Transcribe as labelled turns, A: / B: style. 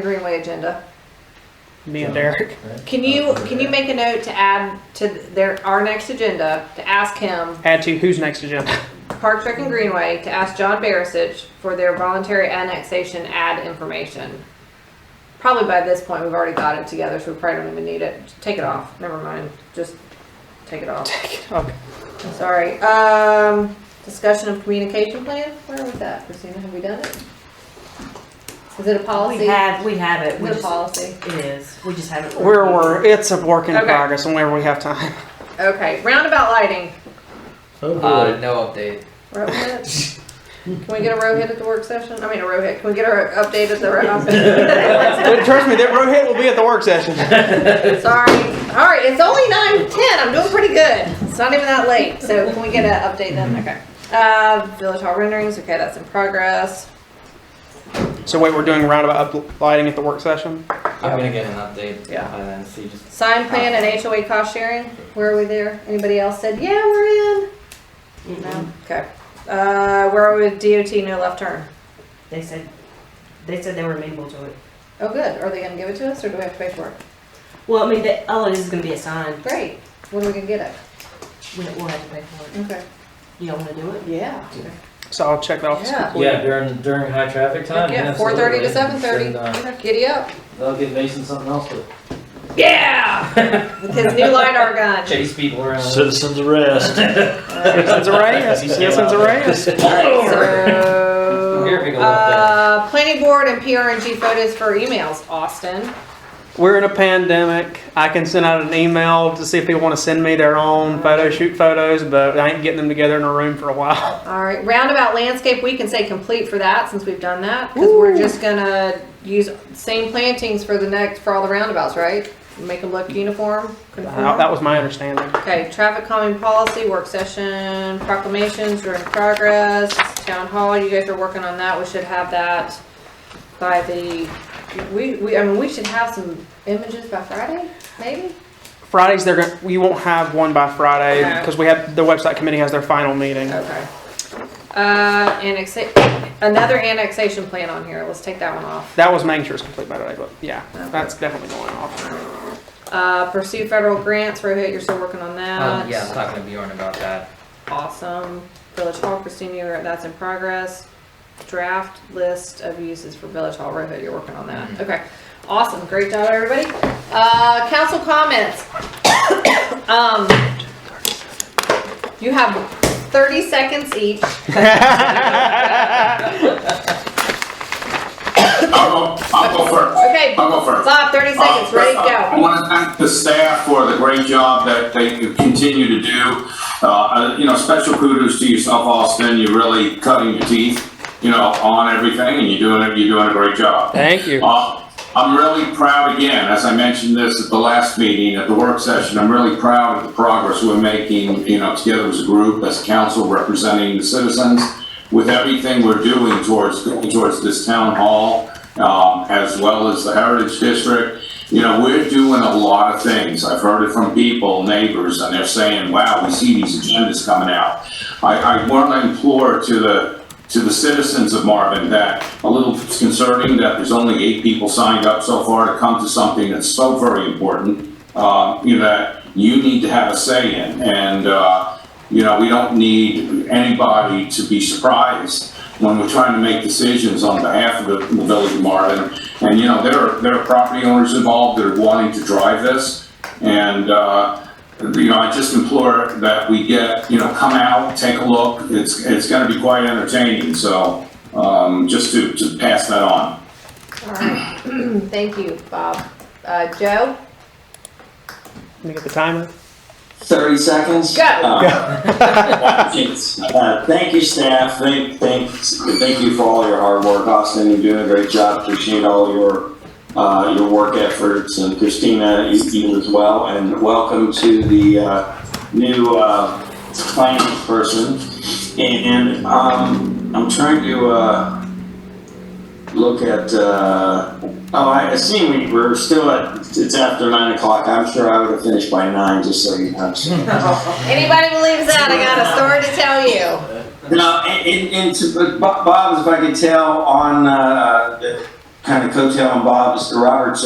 A: Greenway agenda.
B: Me and Derek.
A: Can you, can you make a note to add to their, our next agenda, to ask him,
B: Add to who's next agenda.
A: Park Trek and Greenway, to ask John Barisich for their voluntary annexation ad information? Probably by this point, we've already got it together, so we probably don't even need it. Take it off, never mind, just take it off.
B: Okay.
A: Sorry, um, discussion of communication plan, where was that, Christina, have we done it? Is it a policy?
C: We have, we have it.
A: Is
C: We
A: it a
C: just,
A: policy?
C: it is. We just haven't.
B: We're, we're, it's a work in
A: Okay.
B: progress whenever we have time.
A: Okay, roundabout lighting,
D: Oh,
E: Uh, no update.
A: We're up next. Can we get a row hit at the work session? I mean, a row hit. Can we get our update at the row?
B: But trust me, that Rohit will be at the work session.
A: Sorry. All right, it's only nine ten. I'm doing pretty good. It's not even that late. So can we get an update then? Okay. Uh, village hall renderings. Okay, that's in progress.
B: So wait, we're doing roundabout up lighting at the work session?
E: I'm gonna get an update.
B: Yeah.
E: And then see just
A: Sign plan and HOA cost sharing. Where are we there? Anybody else said yeah, we're in? No. Okay. Uh, where are we with DOT? No left turn.
C: They said, they said they were amenable to it.
A: Oh, good. Are they going to give it to us, or do we have to pay for it?
C: Well, I mean, that, oh, this is gonna be a sign.
A: Great. When are we going to get it?
C: We, we'll have to pay for it.
A: Okay.
C: You don't wanna do it?
A: Yeah.
B: So I'll check that off.
A: Yeah.
D: Yeah, during during high traffic time.
A: Yeah, four thirty to seven
D: absolutely.
A: thirty.
D: And, uh,
A: Giddy up.
D: They'll give Mason something else to
A: Yeah! With his new LiDAR gun.
E: chase people
A: uh,
E: around.
F: Citizens arrest.
B: Citizens array? Yes, citizens array?
E: Here,
A: So,
E: pick a little
A: uh, planning board and PRNG photos for emails, Austin.
B: We're in a pandemic. I can send out an email to see if people want to send me their own photo shoot photos, but I ain't getting them together in a room for a while.
A: All right, roundabout landscape, we can say complete for that since we've done that. Cause we're
B: Ooh.
A: just gonna use same plantings for the next, for all the roundabouts, right? Make them look uniform,
B: Uh,
A: conform.
B: That was my understanding.
A: Okay, traffic calming policy, work session, proclamations are in progress, town hall, you guys are working on that, we should have that by the, we, we, I mean, we should have some images by Friday, maybe?
B: Fridays, they're gonna, we won't have one by Friday
A: Okay.
B: because we have, the website committee has their final meeting.
A: Okay. Uh, annexa, another annexation plan on here, let's take that one off.
B: That was making sure it's complete by today, but yeah,
A: Okay.
B: that's definitely going off.
A: Uh, pursue federal grants, Rohit, you're still working on
E: Um,
A: that.
E: yeah, I'm not gonna be on about that.
A: Awesome. Village Hall, Christina, you're- that's in progress. Draft list of uses for Village Hall, Rohit, you're working on that. Okay, awesome, great job, everybody. Uh, council comments. Um, you have thirty seconds each.
G: I'll go, I'll go first.
A: Okay,
G: I'll go first.
A: Bob, thirty seconds, ready,
G: Uh, first, I
A: go.
G: want to thank the staff for the great job that they continue to do. Uh, Uh, you know, special kudos to yourself, Austin. You're really cutting your teeth, you know, on everything, and you're doing it. You're doing a great job.
B: Thank you.
G: Uh, I'm really proud again, as I mentioned this at the last meeting, at the work session, I'm really proud of the progress we're making, you know, together as a group, as council representing the citizens, with everything we're doing towards, towards this town hall, um, as well as the Heritage District. You know, we're doing a lot of things. I've heard it from people, neighbors, and they're saying, wow, we see these agendas coming out. I, I want to implore to the, to the citizens of Marvin that a little concerning that there's only eight people signed up so far to come to something that's so very important, uh, you know, that you need to have a say in. And, uh, you know, we don't need anybody to be surprised when we're trying to make decisions on behalf of the the village of Marvin. And, you know, there are, there are property owners involved that are wanting to drive this. And, uh, you know, I just implore that we get, you know, come out, take a look. It's, it's gonna be quite entertaining, so, um, just to, to pass that on.
A: All right, thank you, Bob. Uh, Joe?
B: Let me get the timer.
H: 30 seconds?
A: Go.
H: Uh, it's, uh, Thank you, staff. Thank, thanks, thank you for all your hard work, Austin. You're doing a great job. Appreciate all your, uh, your work efforts and Christina, you- you as well. And welcome to the, uh, new, uh, finance person. And, um, I'm trying to, uh, look at, uh, oh, I I see we, we're still at, it's after nine o'clock. I'm sure I would have finished by nine, just so you know. So-
A: Anybody believes that, I got a story to tell you.
H: No, and, and, and to, but Bo- Bob, if I could tell on, uh, kind of coattail on Bob, Mr. Roberts,